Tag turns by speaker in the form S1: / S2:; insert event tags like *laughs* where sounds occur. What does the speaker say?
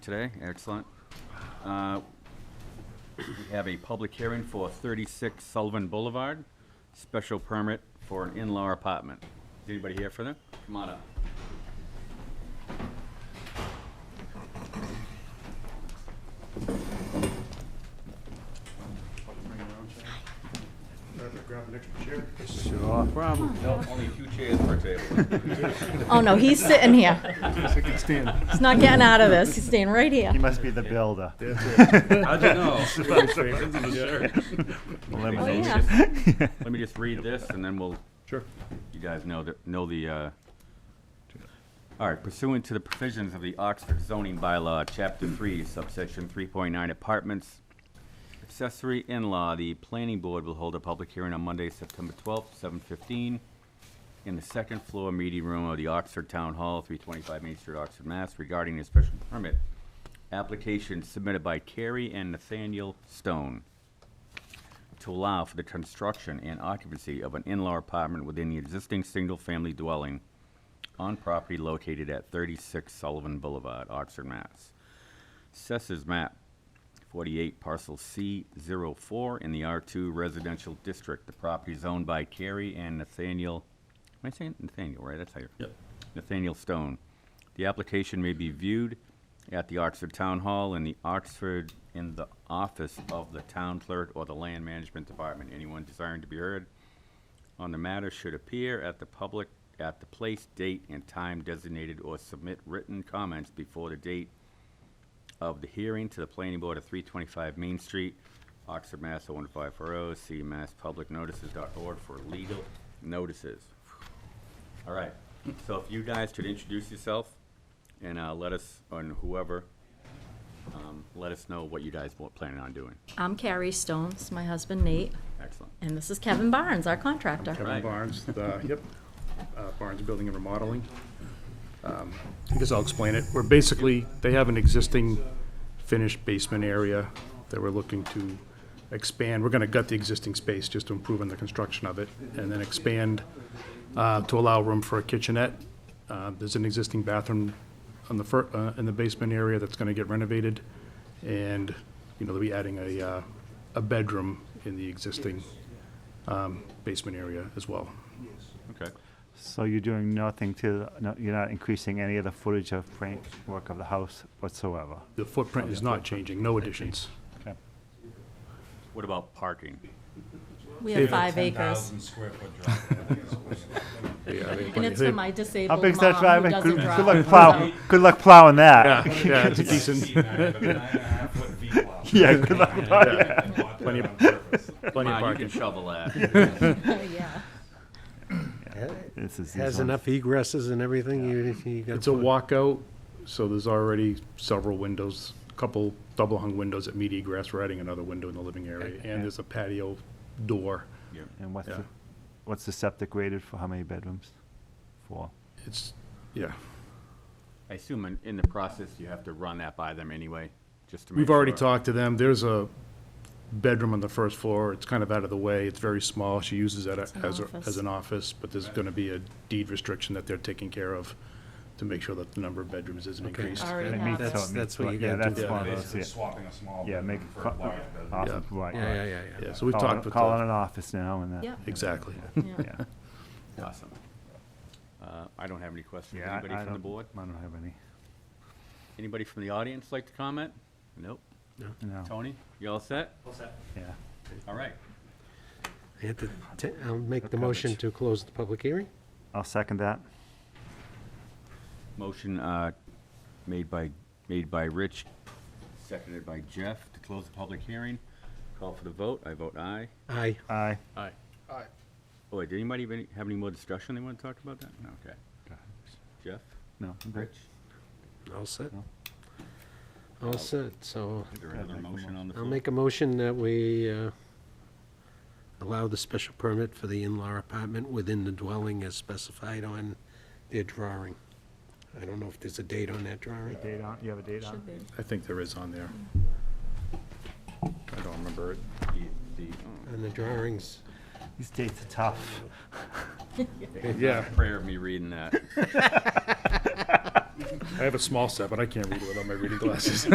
S1: today, excellent. Uh, We have a public hearing for 36 Sullivan Boulevard, special permit for an in-law apartment. Is anybody here for that? Come on up.
S2: Grab an extra chair.
S3: Sure problem.
S1: Um, No, only two chairs per table.
S4: *laughs* Oh, no, he's sitting here.
S2: I can stand.
S4: He's not getting out of this. He's staying right here.
S3: He must be the builder.
S1: How'd you
S4: *laughs*
S3: *laughs*
S1: know?
S4: Oh, *laughs*
S3: Elimination.
S4: yeah.
S1: Let me just read this, and then we'll
S2: Sure.
S1: you guys know the, know the, uh, all right, pursuant to the provisions of the Oxford zoning bylaw, chapter three, subsection three point nine apartments, accessory in-law, the planning board will hold a public hearing on Monday, September twelfth, seven fifteen, in the second floor meeting room of the Oxford Town Hall, three twenty-five Main Street, Oxford, Mass, regarding a special permit application submitted by Carrie and Nathaniel Stone to allow for the construction and occupancy of an in-law apartment within the existing single-family dwelling on property located at 36 Sullivan Boulevard, Oxford, Mass. Assessors map 48, parcel C04 in the R2 residential district. The property is owned by Carrie and Nathaniel, am I saying Nathaniel, right? That's how you Yep. Nathaniel Stone. The application may be viewed at the Oxford Town Hall in the Oxford, in the office of the town clerk or the land management department. Anyone desiring to be heard on the matter should appear at the public, at the place, date, and time designated or submit written comments before the date of the hearing to the planning board at three twenty-five Main Street, Oxford, Mass. 01540. see masspublicnotices.org for legal notices. All right, so if you guys could introduce yourself and, uh, let us, and whoever, um, let us know what you guys were planning on doing.
S4: I'm Carrie Stone. This is my husband Nate,
S1: Excellent.
S4: and this is Kevin Barnes, our contractor.
S1: Right.
S2: Kevin Barnes, the, yep, uh, Barnes Building and Remodeling. Um, I guess I'll explain it. We're basically, they have an existing finished basement area that we're looking to expand. We're gonna gut the existing space just to improve on the construction of it and then expand uh, to allow room for a kitchenette. Uh, There's an existing bathroom on the fir, uh, in the basement area that's gonna get renovated. And, you know, they'll be adding a, uh, a bedroom in the existing um, basement area as well.
S1: Okay.
S3: So you're doing nothing to, no- you're not increasing any of the footage of Frank work of the house whatsoever?
S2: The footprint is not changing, no additions.
S3: Okay.
S1: What about parking?
S4: We have five acres.
S5: 10,000 square foot driveway.
S4: And it's for my
S3: How
S4: disabled mom
S3: big's that
S4: who
S3: driveway?
S4: doesn't
S3: Good
S4: drive.
S3: good luck plow, good luck plowing that.
S2: Yeah, yeah, it's a *laughs* decent,
S4: *laughs*
S5: Nine and a half foot V
S2: *laughs*
S5: block.
S3: Yeah, good luck plowing that.
S5: I bought that on purpose.
S2: plenty of
S1: Come on, you can
S2: parking.
S1: shovel that.
S2: *laughs*
S4: So, *laughs* Yeah.
S3: This is- these
S6: Has
S3: ones-
S6: enough egresses and everything, you, you got.
S2: It's a walkout, so there's already several windows, a couple double-hung windows at meaty grass. We're adding another window in the living area, and there's a patio door.
S1: Yeah.
S3: And what's
S2: Yeah.
S3: the, what's the septic rated for how many bedrooms? Four.
S2: It's, yeah.
S1: I assume in, in the process, you have to run that by them anyway, just to make
S2: We've already
S1: sure.
S2: talked to them. There's a bedroom on the first floor. It's kind of out of the way. It's very small. She uses that
S4: an
S2: as, a-
S4: office.
S2: as an office, but there's going to be a deed restriction that they're taking care of to make sure that the number of bedrooms isn't
S6: Okay.
S2: increased.
S4: Alright.
S3: It
S4: Yeah.
S3: meets- so
S6: That's-
S3: it meets
S6: that's what
S3: what-
S6: you
S3: yeah,
S6: gotta do.
S3: that's one of those,
S5: Basically
S3: yeah.
S5: swapping a small
S3: Yeah, make,
S5: bedroom for a
S3: co-
S5: large bedroom.
S3: awesome, right,
S6: Yeah, yeah,
S3: right.
S6: yeah, yeah.
S2: Yeah, so we've
S3: Call it-
S2: talked with
S3: Call it
S2: them.
S3: an office now and that.
S4: Yep.
S2: Exactly.
S4: Yeah.
S3: *laughs* Yeah.
S1: Awesome. Uh, I don't have any questions.
S3: Yeah, I-
S1: Anybody
S3: I
S1: from the
S3: don't-
S1: board?
S3: I don't have any,
S1: Anybody from the audience like to comment? Nope.
S3: no,
S1: Tony, you all set?
S3: yeah.
S1: All right.
S6: I had to ta- I'll make the motion to close the public hearing.
S3: I'll second that.
S1: Motion, uh, made by, made by Rich, seconded by Jeff to close the public hearing. Call for the vote. I vote aye.
S6: Aye.
S3: Aye.
S1: Aye. Oh, wait, did anybody have any, have any more discussion they want to talk about that? No, okay. Jeff?
S3: No, I'm good.
S1: Rich?
S6: All set. All set, so
S1: Is there another
S3: make a
S1: motion on the
S6: I'll
S1: floor?
S6: make a motion that we uh, allow the special permit for the in-law apartment within the dwelling as specified on their drawing. I don't know if there's a date on that drawing.
S3: Date on, you have a date on?
S4: Should be.
S2: I think there is on there. I don't remember it.
S1: The- the- oh.
S6: On the drawings,
S3: These dates are tough.
S2: Yeah.
S1: Prayer of me reading that.
S2: I have a small set, but I can't read without my reading glasses.